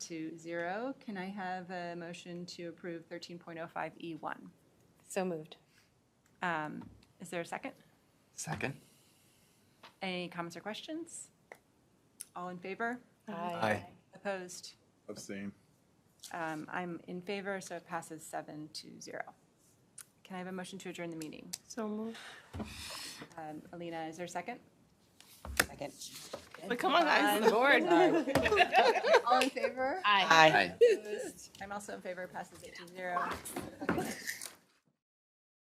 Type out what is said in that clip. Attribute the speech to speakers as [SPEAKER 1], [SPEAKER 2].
[SPEAKER 1] to zero. Can I have a motion to approve 13.05E1?
[SPEAKER 2] So moved.
[SPEAKER 1] E Um, Is there a second?
[SPEAKER 3] Second.
[SPEAKER 1] Any comments or questions? All in favor?
[SPEAKER 3] Aye.
[SPEAKER 1] Opposed?
[SPEAKER 4] Abstain.
[SPEAKER 1] Um, I'm in favor, so it passes seven to zero. Can I have a motion to adjourn the meeting?
[SPEAKER 2] So moved.
[SPEAKER 1] Um, Alina, is there a second?
[SPEAKER 5] Second.
[SPEAKER 2] But come on, guys, the board.
[SPEAKER 1] All in favor?
[SPEAKER 2] Aye.
[SPEAKER 5] Aye.
[SPEAKER 3] Aye.
[SPEAKER 1] I'm also in favor, passes eight to zero. Okay.